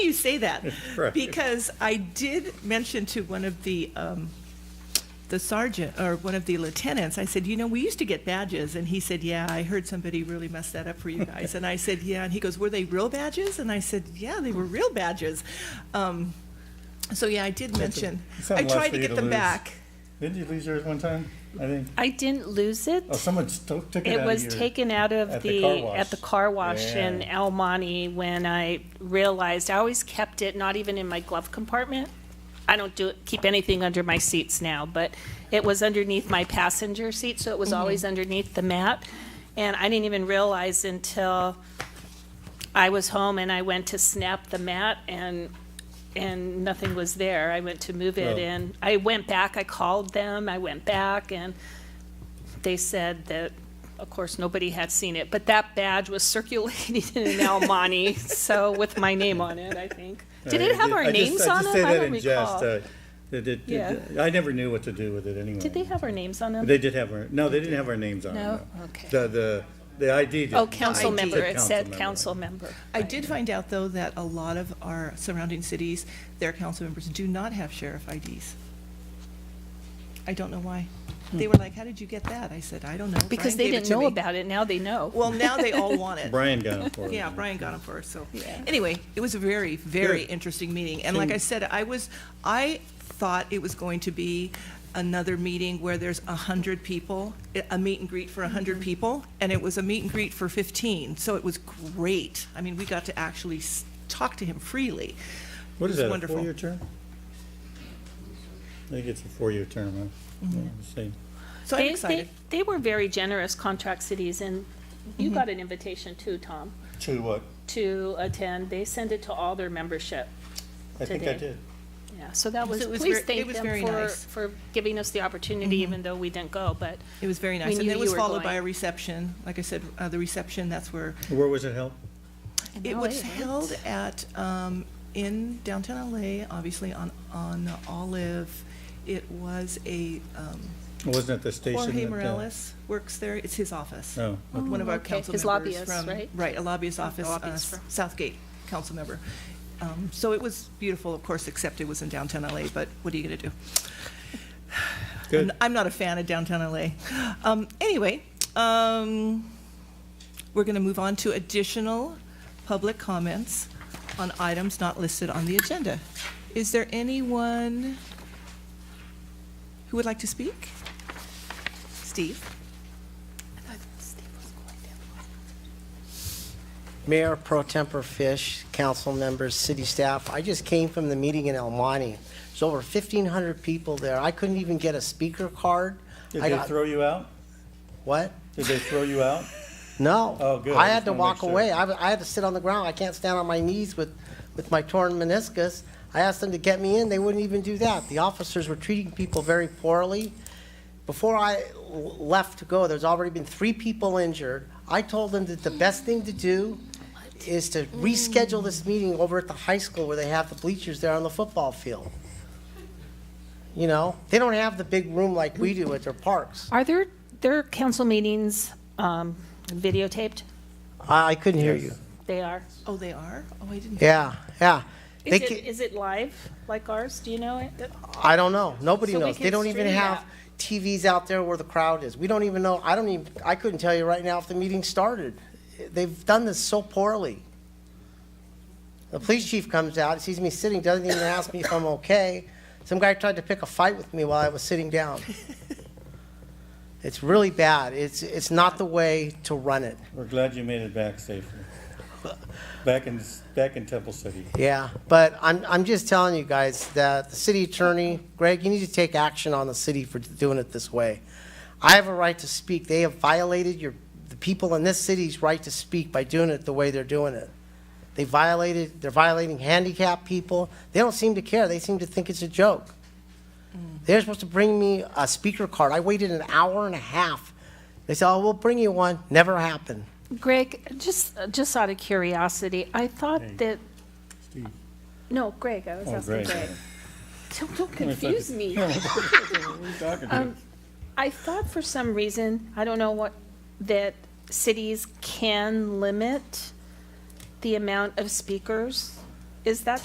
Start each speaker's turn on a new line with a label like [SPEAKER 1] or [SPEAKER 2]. [SPEAKER 1] you say that.
[SPEAKER 2] Right.
[SPEAKER 1] Because I did mention to one of the, um, the sergeant, or one of the lieutenants, I said, you know, we used to get badges, and he said, yeah, I heard somebody really messed that up for you guys. And I said, yeah, and he goes, were they real badges? And I said, yeah, they were real badges. Um, so, yeah, I did mention,
[SPEAKER 2] it's not
[SPEAKER 1] I
[SPEAKER 2] a lot
[SPEAKER 1] tried
[SPEAKER 2] for
[SPEAKER 1] to
[SPEAKER 2] you
[SPEAKER 1] get
[SPEAKER 2] to
[SPEAKER 1] them
[SPEAKER 2] lose.
[SPEAKER 1] back.
[SPEAKER 2] Didn't you lose yours one time? I think.
[SPEAKER 3] I didn't lose it.
[SPEAKER 2] Oh, someone sto- took it out
[SPEAKER 3] It
[SPEAKER 2] of
[SPEAKER 3] was
[SPEAKER 2] your-
[SPEAKER 3] taken out
[SPEAKER 2] at
[SPEAKER 3] of
[SPEAKER 2] the car
[SPEAKER 3] the,
[SPEAKER 2] wash.
[SPEAKER 3] at the car wash in
[SPEAKER 2] Yeah.
[SPEAKER 3] El Monte when I realized, I always kept it, not even in my glove compartment. I don't do, keep anything under my seats now, but it was underneath my passenger seat, so it was always underneath the mat. And I didn't even realize until I was home and I went to snap the mat and, and nothing was there. I went to move
[SPEAKER 2] Well-
[SPEAKER 3] it and I went back, I called them, I went back and they said that, of course, nobody had seen it, but that badge was circulating in El Monte, so with my name on it, I think. Did it have
[SPEAKER 2] Uh, I
[SPEAKER 3] our
[SPEAKER 2] just-
[SPEAKER 3] names on
[SPEAKER 2] I just
[SPEAKER 3] it?
[SPEAKER 2] say
[SPEAKER 3] I
[SPEAKER 2] that
[SPEAKER 3] don't
[SPEAKER 2] in jest.
[SPEAKER 3] recall.
[SPEAKER 2] uh, that it-
[SPEAKER 3] Yeah.
[SPEAKER 2] it- I never knew what to do with it anyway.
[SPEAKER 3] Did they have our names on them?
[SPEAKER 2] They did have our, no, they didn't have our names on it.
[SPEAKER 3] No? Okay.
[SPEAKER 2] The, the, the ID did.
[SPEAKER 3] Oh, council
[SPEAKER 1] I did.
[SPEAKER 3] member, it said
[SPEAKER 2] member.
[SPEAKER 3] council member.
[SPEAKER 1] I did find out, though, that a lot of our surrounding cities, their council members do not have sheriff IDs. I don't know why. They were like, how did you get that? I said, I don't know.
[SPEAKER 3] Hmm. Because
[SPEAKER 1] Brian
[SPEAKER 3] they
[SPEAKER 1] gave it
[SPEAKER 3] didn't
[SPEAKER 1] to
[SPEAKER 3] know
[SPEAKER 1] me."
[SPEAKER 3] about it, now they know.
[SPEAKER 1] Well, now they all want it.
[SPEAKER 2] Brian got it for us.
[SPEAKER 1] Yeah, Brian got them for us, so. Anyway, it was a very, very
[SPEAKER 2] Good.
[SPEAKER 1] interesting meeting. And like I said, I was, I thought it was going to be another meeting where there's a hundred people, i- a meet and greet for a hundred
[SPEAKER 2] Mm-hmm.
[SPEAKER 1] people, and it was a meet and greet for fifteen, so it was great. I mean, we got to actually s- talk to him freely.
[SPEAKER 2] What
[SPEAKER 1] It was
[SPEAKER 2] is that, a
[SPEAKER 1] wonderful.
[SPEAKER 2] four-year term? I think it's a four-year term, huh?
[SPEAKER 3] Mm-hmm.
[SPEAKER 2] Yeah, same.
[SPEAKER 1] So
[SPEAKER 3] They-
[SPEAKER 1] I'm
[SPEAKER 3] they-
[SPEAKER 1] excited.
[SPEAKER 3] They were very generous, Contract Cities, and you got an invitation too, Tom,
[SPEAKER 2] To what?
[SPEAKER 3] to attend. They send it to all their membership.
[SPEAKER 2] I think I
[SPEAKER 3] Today.
[SPEAKER 2] did.
[SPEAKER 3] Yeah, so that was,
[SPEAKER 1] it was
[SPEAKER 3] please
[SPEAKER 1] ver- it
[SPEAKER 3] thank
[SPEAKER 1] was
[SPEAKER 3] them
[SPEAKER 1] very
[SPEAKER 3] for,
[SPEAKER 1] nice.
[SPEAKER 3] for giving us the opportunity, even though we didn't go, but.
[SPEAKER 1] Mm-hmm. It was very nice.
[SPEAKER 3] We
[SPEAKER 1] And
[SPEAKER 3] knew
[SPEAKER 1] then it
[SPEAKER 3] you
[SPEAKER 1] was
[SPEAKER 3] were
[SPEAKER 1] followed by
[SPEAKER 3] going.
[SPEAKER 1] a reception. Like I said, uh, the reception, that's where
[SPEAKER 2] Where was it held?
[SPEAKER 1] It
[SPEAKER 3] LA,
[SPEAKER 1] was
[SPEAKER 3] right?
[SPEAKER 1] held at, um, in downtown LA, obviously on, on Olive. It was a, um,
[SPEAKER 2] Wasn't it the station?
[SPEAKER 1] Jorge
[SPEAKER 2] that, uh,
[SPEAKER 1] Morales works there. It's his office.
[SPEAKER 2] Oh, okay.
[SPEAKER 1] One of our
[SPEAKER 3] okay.
[SPEAKER 1] council
[SPEAKER 3] His
[SPEAKER 1] members
[SPEAKER 3] lobbyist,
[SPEAKER 1] from-
[SPEAKER 3] right?
[SPEAKER 1] Right, a lobbyist office, uh,
[SPEAKER 3] lobbyist firm.
[SPEAKER 1] Southgate council member. Um, so it was beautiful, of course, except it was in downtown LA, but what are you gonna do?
[SPEAKER 2] Good.
[SPEAKER 1] I'm- I'm not a fan of downtown LA. Um, anyway, um, we're going to move on to additional public comments on items not listed on the agenda. Is there anyone who would like to speak? Steve?
[SPEAKER 4] Mayor Pro Temper Fish, council members, city staff, I just came from the meeting in El Monte. There's over 1,500 people there. I couldn't even get a speaker card.
[SPEAKER 2] Did
[SPEAKER 4] I
[SPEAKER 2] they
[SPEAKER 4] got-
[SPEAKER 2] throw you out?
[SPEAKER 4] What?
[SPEAKER 2] Did they throw you out?
[SPEAKER 4] No.
[SPEAKER 2] Oh, good. I
[SPEAKER 4] I
[SPEAKER 2] just
[SPEAKER 4] had
[SPEAKER 2] wanna
[SPEAKER 4] to
[SPEAKER 2] make
[SPEAKER 4] walk
[SPEAKER 2] sure.
[SPEAKER 4] away. I, I had to sit on the ground. I can't stand on my knees with, with my torn meniscus. I asked them to get me in. They wouldn't even do that. The officers were treating people very poorly. Before I l- left to go, there's already been three people injured. I told them that the best thing to do is to reschedule this meeting over at the high school where they have the bleachers there on the football field. You know, they don't have the big room like we do at their parks.
[SPEAKER 3] Are there, their council meetings um, videotaped?
[SPEAKER 4] I, I couldn't hear you.
[SPEAKER 3] They are.
[SPEAKER 1] Oh, they are? Oh, I didn't.
[SPEAKER 4] Yeah, yeah. They
[SPEAKER 3] Is it,
[SPEAKER 4] ca-
[SPEAKER 3] is it live like ours? Do you know it?
[SPEAKER 4] I don't know. Nobody
[SPEAKER 3] So we
[SPEAKER 4] knows. They
[SPEAKER 3] can
[SPEAKER 4] don't even
[SPEAKER 3] stream
[SPEAKER 4] have
[SPEAKER 3] that.
[SPEAKER 4] TVs out there where the crowd is. We don't even know. I don't even, I couldn't tell you right now if the meeting started. They've done this so poorly. The police chief comes out, sees me sitting, doesn't even ask me if I'm okay. Some guy tried to pick a fight with me while I was sitting down. It's really bad. It's, it's not the way to run it.
[SPEAKER 2] We're glad you made it back safely. Back in, back in Temple City.
[SPEAKER 4] Yeah, but I'm, I'm just telling you guys that the city attorney, Greg, you need to take action on the city for doing it this way. I have a right to speak. They have violated your, the people in this city's right to speak by doing it the way they're doing it. They violated, they're violating handicapped people. They don't seem to care. They seem to think it's a joke. They're supposed to bring me a speaker card. I waited an hour and a half. They said, oh, we'll bring you one. Never happened.
[SPEAKER 3] Greg, just, just out of curiosity, I thought that,
[SPEAKER 2] Steve.
[SPEAKER 3] no, Greg, I was
[SPEAKER 2] Oh,
[SPEAKER 3] asking
[SPEAKER 2] great.
[SPEAKER 3] Greg. Don't- Don't confuse me.
[SPEAKER 2] What are you talking about?
[SPEAKER 3] I thought for some reason, I don't know what, that cities can limit the amount of speakers. Is that